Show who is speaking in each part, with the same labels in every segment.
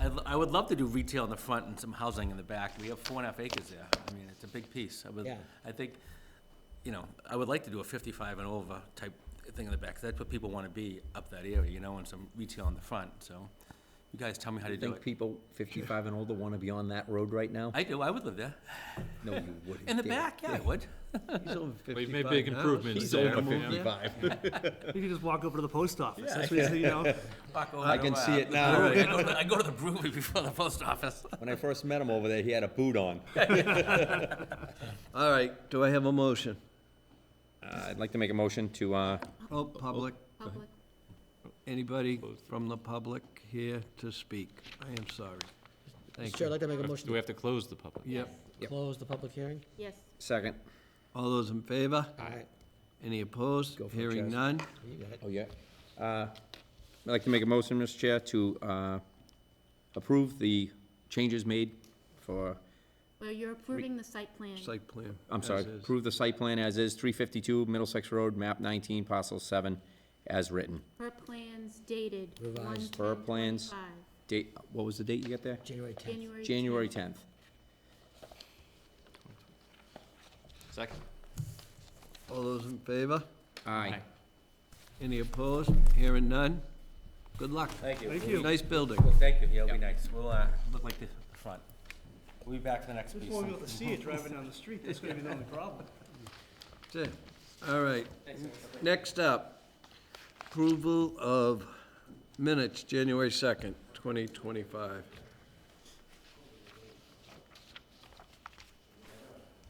Speaker 1: I, I would love to do retail in the front and some housing in the back. We have four and a half acres there. I mean, it's a big piece. I would,
Speaker 2: Yeah.
Speaker 1: I think, you know, I would like to do a fifty-five and over type thing in the back. 'cause That's what people want to be up that area, you know, and some retail in the front, so. You guys tell me how to
Speaker 2: You
Speaker 1: do
Speaker 2: think
Speaker 1: it.
Speaker 2: people fifty-five and older wanna be on that road right now?
Speaker 1: I do, I would live there.
Speaker 2: No, you wouldn't.
Speaker 1: In the
Speaker 2: dare.
Speaker 1: back, yeah, I would.
Speaker 2: He's over
Speaker 3: We've made
Speaker 2: 55
Speaker 3: big
Speaker 2: now.
Speaker 3: improvements
Speaker 2: He's
Speaker 3: there.
Speaker 2: over
Speaker 3: Yeah.
Speaker 2: fifty-five.
Speaker 4: You can just walk over to the post office. That's what you know.
Speaker 1: Fuck over
Speaker 2: I
Speaker 1: to,
Speaker 2: can
Speaker 1: uh,
Speaker 2: see it
Speaker 1: the
Speaker 2: now.
Speaker 1: brewery. I go to- I go to the brewery before the post office.
Speaker 2: When I first met him over there, he had a boot on. Uh,
Speaker 5: All right, do I have a motion?
Speaker 2: Uh, I'd like to make a motion to, uh,
Speaker 5: Oh, public. Anybody from the public here to speak? I am sorry. Thank
Speaker 6: Chair, I'd
Speaker 5: you.
Speaker 6: like to make a
Speaker 3: Do
Speaker 6: motion
Speaker 3: we have to close the public?
Speaker 5: Yep.
Speaker 6: to
Speaker 2: Yep.
Speaker 6: close the public hearing.
Speaker 7: Yes,
Speaker 2: second.
Speaker 5: All those in favor?
Speaker 6: Aye.
Speaker 5: Any opposed?
Speaker 2: Go for it,
Speaker 5: Hearing
Speaker 2: Chaz.
Speaker 5: none?
Speaker 6: You got it.
Speaker 2: Oh, yeah. Uh, I'd like to make a motion, Mr. Chair, to, uh, approve the changes made for,
Speaker 7: well, you're approving the site plan.
Speaker 5: Site plan.
Speaker 2: I'm
Speaker 5: as
Speaker 2: sorry,
Speaker 5: is.
Speaker 2: approve the site plan as is, three fifty-two Middlesex Road, map nineteen, parcel seven, as written.
Speaker 7: Her plans dated one
Speaker 6: Revised.
Speaker 2: Per plans.
Speaker 7: 25,
Speaker 2: Date, what was the date you got there?
Speaker 6: January 10th.
Speaker 7: January.
Speaker 2: January
Speaker 7: 10th.
Speaker 2: tenth.
Speaker 3: Second.
Speaker 5: All those in favor?
Speaker 2: Aye.
Speaker 5: Any opposed? Hearing none? Good luck.
Speaker 1: Thank you.
Speaker 4: Thank you.
Speaker 5: Nice building.
Speaker 1: Thank you, yeah, it'll be nice. We'll, uh, look like the, the front. We'll be back for the next piece.
Speaker 4: Just won't be able to see it driving down the street. That's gonna be the only problem.
Speaker 5: That's it. All right. Next up, approval of minutes, January 2nd, 2025.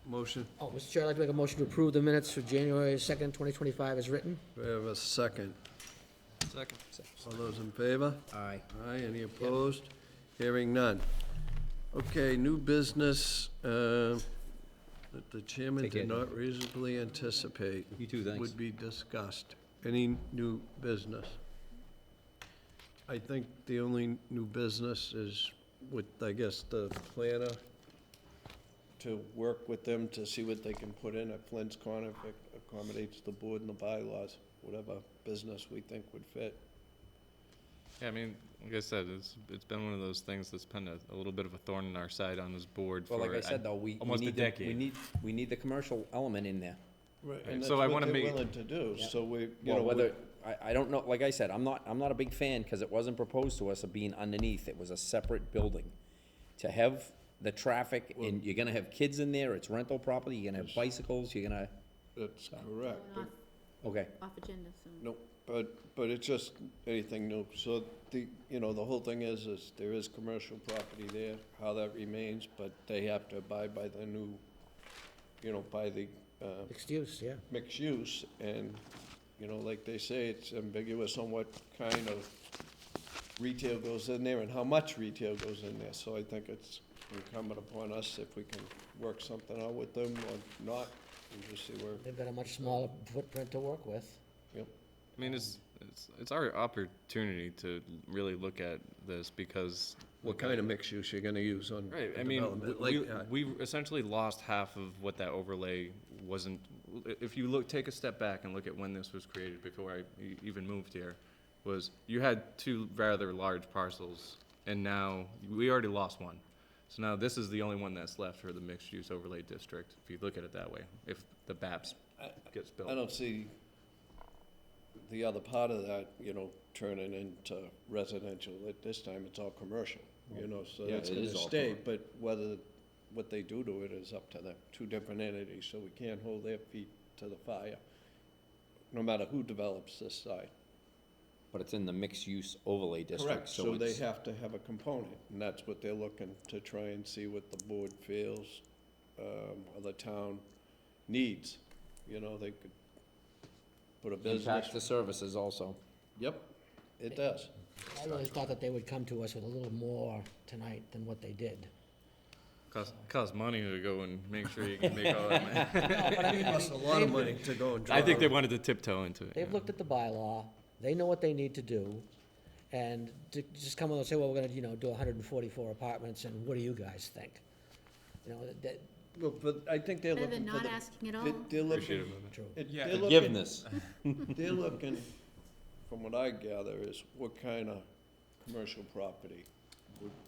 Speaker 5: Motion,
Speaker 6: Oh, Mr. Chair, I'd like to make a motion to approve the minutes for January 2nd, 2025 as written.
Speaker 5: we have a second. Second. All those in favor?
Speaker 2: Aye.
Speaker 5: Aye, any opposed? Hearing none. Okay, new business uh, that the chairman
Speaker 2: Take it.
Speaker 5: did not reasonably anticipate.
Speaker 2: You too, thanks.
Speaker 5: Would be discussed. Any new business? I think the only new business is with, I guess, the planner, to work with them to see what they can put in at Flint's Corner if it accommodates the board and the bylaws, whatever business we think would fit.
Speaker 3: Yeah, I mean, like I said, it's, it's been one of those things that's been a, a little bit of a thorn in our side on this board for. uh,
Speaker 2: Well, like I said, though, we, we
Speaker 3: Almost a
Speaker 2: need, the- we
Speaker 3: decade.
Speaker 2: need, we need the commercial element in there.
Speaker 4: Right.
Speaker 3: And so I wanna make,
Speaker 8: willing to do, so we, you know,
Speaker 2: Well,
Speaker 8: we-
Speaker 2: whether, I, I don't know, like I said, I'm not, I'm not a big fan, because it wasn't proposed to us of being underneath, it was a separate building. To have the traffic, and you're gonna have kids in there, it's rental property, you're gonna have bicycles, you're gonna,
Speaker 8: that's correct.
Speaker 7: Going
Speaker 8: But,
Speaker 2: okay,
Speaker 7: Off off agenda, so.
Speaker 8: no, but, but it's just anything new. So the, you know, the whole thing is, is there is commercial property there, how that remains, but they have to abide by the new, you know, by the, uh,
Speaker 6: Excuse, yeah.
Speaker 8: mixed use, and, you know, like they say, it's ambiguous on what kind of retail goes in there and how much retail goes in there, so I think it's incumbent upon us if we can work something out with them or not, and just see where,
Speaker 6: They've got a much smaller footprint to work with.
Speaker 8: yep.
Speaker 3: I mean, it's, it's, it's our opportunity to really look at this because.
Speaker 5: What kind of mixed use you're gonna use on
Speaker 3: Right,
Speaker 5: the
Speaker 3: I mean,
Speaker 5: development, like,
Speaker 3: we,
Speaker 5: uh,
Speaker 3: we essentially lost half of what that overlay wasn't. If you look, take a step back and look at when this was created before I e- even moved here, was you had two rather large parcels and now we already lost one. So now this is the only one that's left for the mixed use overlay district, if you look at it that way, if the BAPS gets built.
Speaker 8: I don't see the other part of that, you know, turning into residential, at this time, it's all commercial, you know, so
Speaker 2: Yeah,
Speaker 8: it's
Speaker 2: it
Speaker 8: gonna
Speaker 2: is all
Speaker 8: stay, but whether, what they do to it is up to them, two different entities, so we can't hold their feet to the fire, no matter who develops this side.
Speaker 2: but it's in the mixed-use overlay district,
Speaker 8: Correct,
Speaker 2: so
Speaker 8: so they
Speaker 2: it's,
Speaker 8: have to have a component, and that's what they're looking to try and see what the board feels, um, or the town needs, you know, they could put a business
Speaker 2: impacts the services also.
Speaker 8: Yep, it does.
Speaker 6: I really thought that they would come to us with a little more tonight than what they did.
Speaker 3: Cost, cost money to go and make sure you can make all that money.
Speaker 5: Costs a lot of money to go and draw.
Speaker 3: I think they wanted to tiptoe into it.
Speaker 6: They've looked at the bylaw, they know what they need to do, and to just come along and say, well, we're gonna, you know, do hundred and forty-four apartments, and what do you guys think? You know, that,
Speaker 8: Well, but I think they're
Speaker 7: Better than
Speaker 8: looking for
Speaker 7: not
Speaker 8: the.
Speaker 7: asking at all.
Speaker 8: they- They're
Speaker 3: Appreciate
Speaker 8: looking,
Speaker 3: it.
Speaker 6: true.
Speaker 8: it- they're looking,
Speaker 2: Forgiveness,
Speaker 8: they're looking, from what I gather, is what kind of commercial property would